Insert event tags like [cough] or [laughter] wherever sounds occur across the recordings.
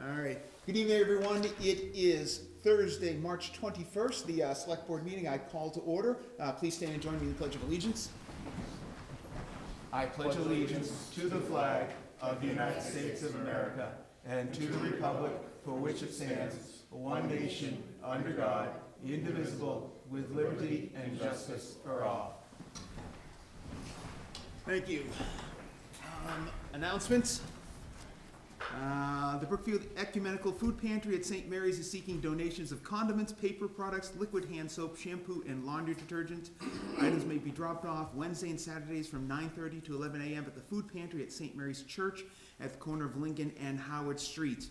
All right. Good evening, everyone. It is Thursday, March 21st, the uh, Select Board meeting I call to order. Uh, Please stand and join me in the Pledge of Allegiance. I pledge allegiance to the flag of the United States of America and to the republic for which it stands, one nation, under God, indivisible, with liberty and justice for all. Thank you. Um, Announcements. Uh, The Brookfield Ecumenical Food Pantry at St. Mary's is seeking donations of condiments, paper products, liquid hand soap, shampoo, and laundry detergent. Items may be dropped off Wednesday and Saturdays from 9:30 to 11 a.m. at the food pantry at St. Mary's Church at the corner of Lincoln and Howard Streets.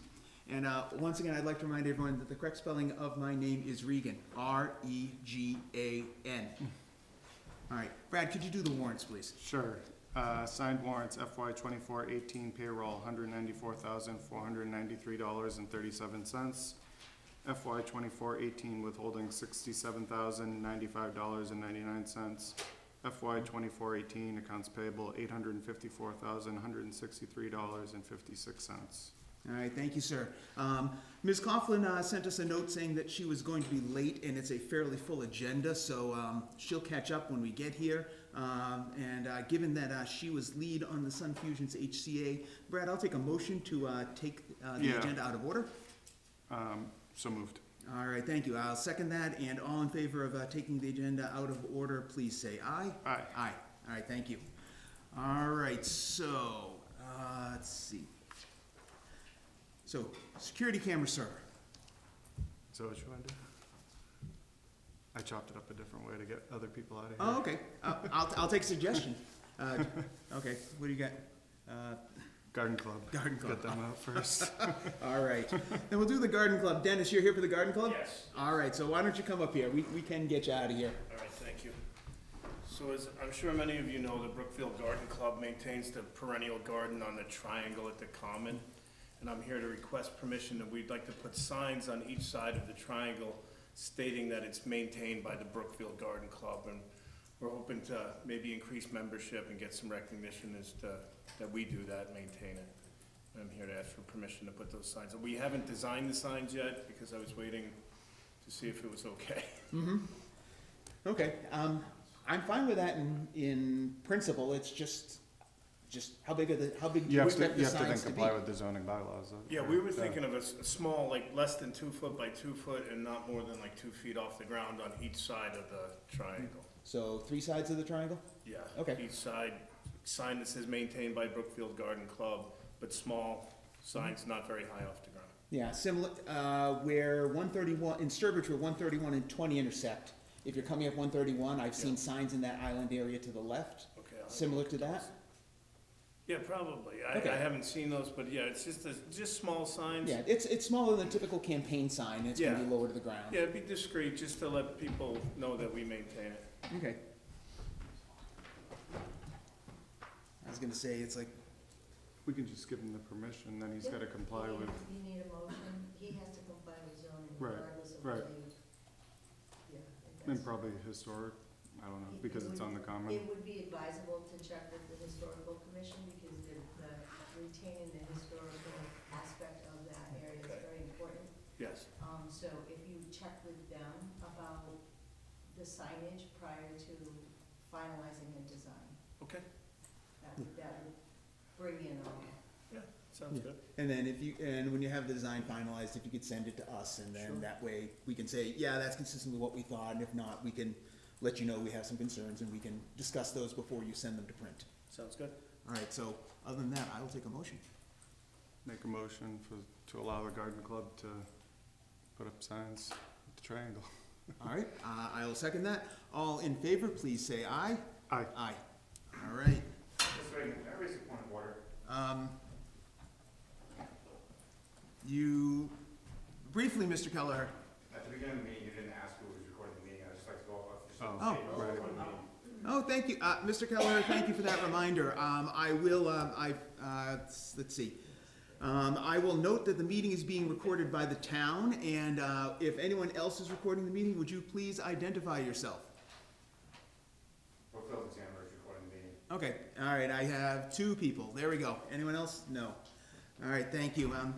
And uh, once again, I'd like to remind everyone that the correct spelling of my name is Regan, E R-E-G-A-N. All right, Brad, could you do the warrants, please? Sure. Uh, Signed warrants FY twenty-four eighteen payroll, hundred ninety-four thousand, four hundred ninety-three dollars and thirty-seven cents. FY twenty-four eighteen withholding, sixty-seven thousand, ninety-five dollars and ninety-nine cents. FY twenty-four eighteen accounts payable, eight hundred and fifty-four thousand, one hundred and sixty-three dollars and fifty-six cents. All right, thank you, sir. Um, Ms. Coughlin uh, sent us a note saying that she was going to be late, and it's a fairly full agenda, so um, she'll catch up when we get here. Um, And uh, given that uh, she was lead on the Sun Fusions HCA, Brad, I'll take a motion to uh, take uh, the Yeah. agenda out of order. Um, So moved. All right, thank you. I'll second that, and all in favor of uh, taking the agenda out of order, please say aye. Aye. Aye. All right, thank you. All right, so, uh, let's see. So, security camera server. Is that what you wanted to do? I chopped it up a different way to get other people out of here. Oh, okay. Uh, I'll, I'll take suggestion. Uh, okay, what do you got? Uh, Garden Club. Garden Club. Get them out [laughs] first. all right. Then we'll do the garden club. Dennis, you're here for the garden club? Yes. All right, so why don't you come up here? We, we can get you out of here. All right, thank you. So as I'm sure many of you know, the Brookfield Garden Club maintains the perennial garden on the triangle at the common. And I'm here to request permission that we'd like to put signs on each side of the triangle stating that it's maintained by the Brookfield Garden Club. And we're hoping to maybe increase membership and get some recognition as to, that we do that, maintain it. And I'm here to ask for permission to put those signs. up. We haven't designed the signs yet because I was waiting to see if it was okay. [laughs] Okay, um, I'm fine with that in, in principle, it's just, just how big are the, how big do You you have to, expect the you have to then signs to be? comply with the zoning bylaws. uh, Yeah, we were right? thinking of a, s- a small, like, less than two foot by two foot and not more than like two feet off the ground on each side of the triangle. So, three sides of the triangle? Yeah. Okay. Each side, sign that says maintained by Brookfield Garden Club, but small Mm-hmm. signs not very high off the ground. Yeah, similar, uh, where one thirty-one, in Sturbridge, where one thirty-one and twenty intersect. If you're coming up one thirty-one, I've seen signs in that island area to the left, Okay. I'll- similar to that? Yeah, probably. I, Okay. I haven't seen those, but yeah, it's just, a- just small signs. Yeah, it's, it's smaller than a typical campaign sign, and it's gonna be Yeah. lower to the ground. Yeah, be discreet, just to let people know that we maintain it. Okay. I was gonna say, it's like, We can just give him the permission, then he's gotta comply with, You need a motion, he has to comply with zoning Right, regardless of right. what you. Yeah, I and guess. probably historic, I don't know, because it's on the common. It would be advisable to check with the historical commission because the, the retaining the historical aspect of that area is Okay. very important. Yes. Um, so if you check with them about the signage prior to finalizing a design, Okay, that, would- that would bring in all. sounds Yeah. good. And then if you, and when you have the design finalized, if you could send it to us, and then Sure. that way, we can say, yeah, that's consistent with what we thought, and if not, we can let you know we have some concerns, and we can discuss those before you send them to print. Sounds good. All right, so, other than that, I will take a motion. Make a motion for, to allow the garden club to put up signs at the triangle. All right, [laughs] uh, I will second that. All in favor, please say aye. Aye. Aye. All right, Mr. Reagan, can I raise a point of order? um, you, briefly, Mr. Kelleher, At the beginning of the meeting, you didn't ask who was recording the meeting, I'd just like to go off. just on the Oh, table, right. on the meeting. Oh, thank you, uh, Mr. Keller, thank you for that reminder. Um, I will, um, I, uh, s- let's see. Um, I will note that the meeting is being recorded by the town, and, uh, if anyone else is recording the meeting, would you please identify yourself? Brookfield Examiner is recording the meeting. Okay, all right, I have two people, there we go. Anyone else? No. All right, thank you, um,